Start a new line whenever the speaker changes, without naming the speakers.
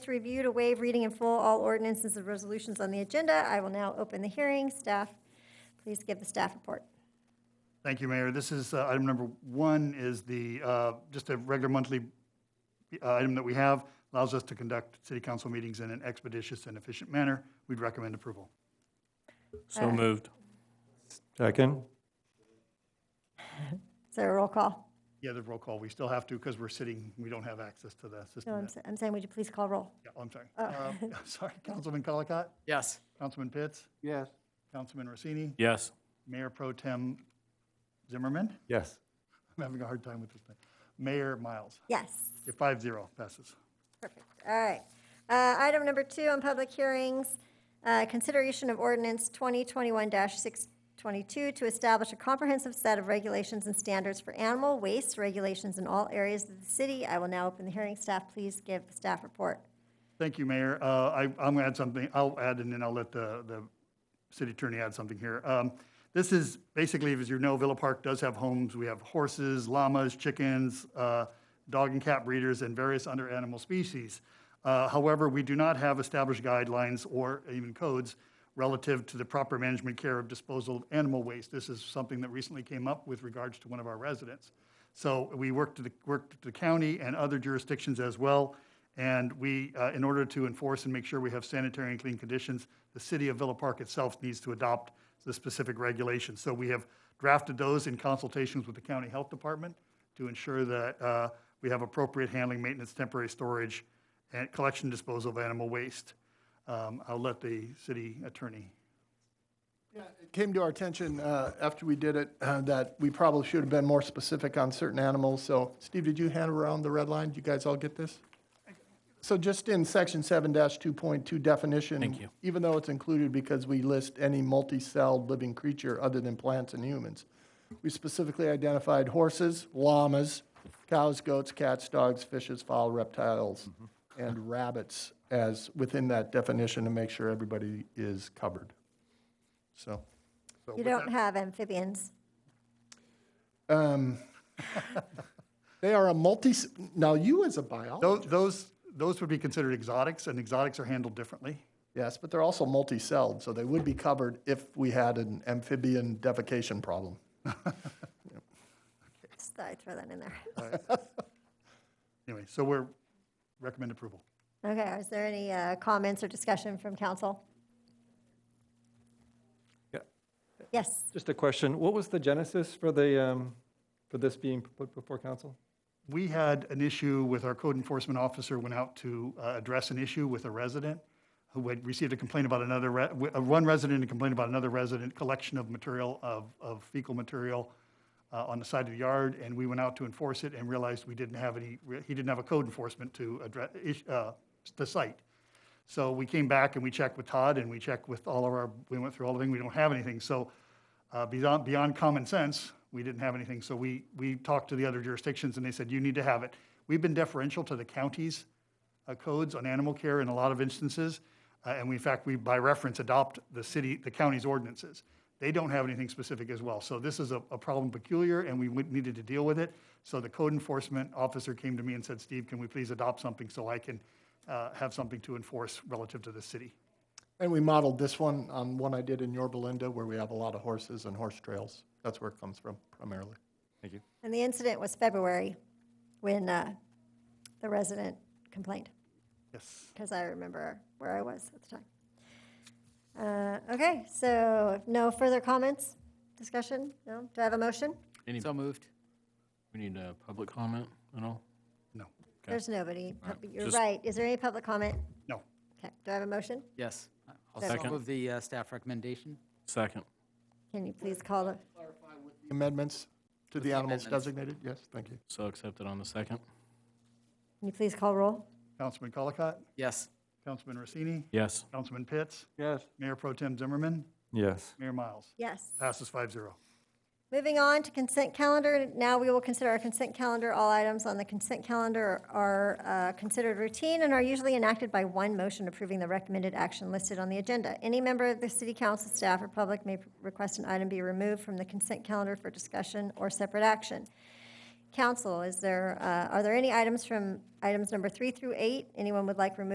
To review to waive reading in full all ordinances and resolutions on the agenda, I will now open the hearing. Staff, please give the staff report.
Thank you, Mayor. This is, uh, item number one is the, uh, just a regular monthly uh, item that we have, allows us to conduct city council meetings in an expeditious and efficient manner. We'd recommend approval.
So moved.
Second?
Is there a roll call?
Yeah, the roll call, we still have to because we're sitting, we don't have access to the
No,
system.
I'm,
that-
sa- I'm saying, would you please call roll?
Yeah, oh, I'm sorry. Uh, Sorry, Councilman Colacott,
Yes.
Councilman Pitts,
Yes.
Councilman Rossini,
Yes.
Mayor Pro Tem Zimmerman.
Yes.
I'm having a hard time with this thing. Mayor Miles,
Yes.
Yeah, five zero passes.
Perfect. All right. Uh, Item number two on public hearings, uh, consideration of ordinance 2021-622 to establish a comprehensive set of regulations and standards for animal waste regulations in all areas of the city. I will now open the hearing. Staff, please give the staff report.
Thank you, Mayor. Uh, I, I'm going to add something, I'll add, and then I'll let the, the city attorney add something here. Um, This is, basically, as you know, Villa Park does have homes. We have horses, llamas, chickens, uh, dog and cat breeders, and various other animal species. Uh, However, we do not have established guidelines or even codes relative to the proper management care of disposal of animal waste. This is something that recently came up with regards to one of our residents. So we worked to the, worked to the county and other jurisdictions as well. And we, uh, in order to enforce and make sure we have sanitary and clean conditions, the city of Villa Park itself needs to adopt the specific regulations. So we have drafted those in consultations with the county health department to ensure that uh, we have appropriate handling, maintenance, temporary storage, and collection disposal of animal waste. Um, I'll let the city attorney.
It came to our attention uh, after we did it uh, that we probably should have been more specific on certain animals. So, Steve, did you hand around the red line? Did you guys all get this? So just in section seven two point two definition. Even though it's included because we list any multi-celled living creature other than plants and humans. We specifically identified horses, llamas, cows, goats, cats, dogs, fishes, fowl, reptiles, and rabbits as within that definition to make sure everybody is covered. So.
So
You
with
don't
that,
have amphibians.
Um, They are a multi, now you as a biologist,
tho- Those, those would be considered exotics, and exotics are handled differently.
yes, but they're also multi-celled, so they would be covered if we had an amphibian defecation problem.
Just thought I'd throw that in there.
Anyway, so we're, recommend approval.
Okay, is there any uh, comments or discussion from council?
Yeah.
Yes,
Just a question, what was the genesis for the, um, for this being put before council?
We had an issue with our code enforcement officer went out to uh, address an issue with a resident who had received a complaint about another, re- wi- uh, one resident and complained about another resident, collection of material, of of fecal material uh, on the side of the yard, and we went out to enforce it and realized we didn't have any, re- he didn't have a code enforcement to address, ish- uh, the site. So we came back and we checked with Todd and we checked with all of our, we went through all the things, we don't have anything. So uh, beyond, beyond common sense, we didn't have anything. So we, we talked to the other jurisdictions and they said, you need to have it. We've been deferential to the county's uh, codes on animal care in a lot of instances. uh, And we, in fact, we by reference adopt the city, the county's ordinances. They don't have anything specific as well. So this is a, a problem peculiar and we would- needed to deal with it. So the code enforcement officer came to me and said, Steve, can we please adopt something so I can uh, have something to enforce relative to the city?
And we modeled this one on one I did in Yorba Linda, where we have a lot of horses and horse trails. That's where it comes from primarily.
Thank you.
and the incident was February when uh, the resident complained,
Yes.
because I remember where I was at the time. Uh, Okay, so no further comments, discussion? No? Do I have a motion?
Any,
So moved.
we need a public comment at all?
No.
Okay.
There's nobody.
Uh,
All right,
You're
just-
right. Is there any public comment?
No.
Okay, do I have a motion?
Yes. I'll
Second.
move the uh, staff recommendation.
Second.
Can you please call the,
Amendments to the animals
amendments.
designated? Yes, thank you.
So accepted on the second?
can you please call roll?
Councilman Colacott,
Yes.
Councilman Rossini,
Yes.
Councilman Pitts,
Yes.
Mayor Pro Tem Zimmerman,
Yes.
Mayor Miles.
Yes.
Passes 5-0.
Moving on to consent calendar, now we will consider our consent calendar. All items on the consent calendar are uh, considered routine and are usually enacted by one motion approving the recommended action listed on the agenda. Any member of the city council, staff, or public may request an item be removed from the consent calendar for discussion or separate action. Council, is there, uh, are there any items from items number three through eight anyone would like removed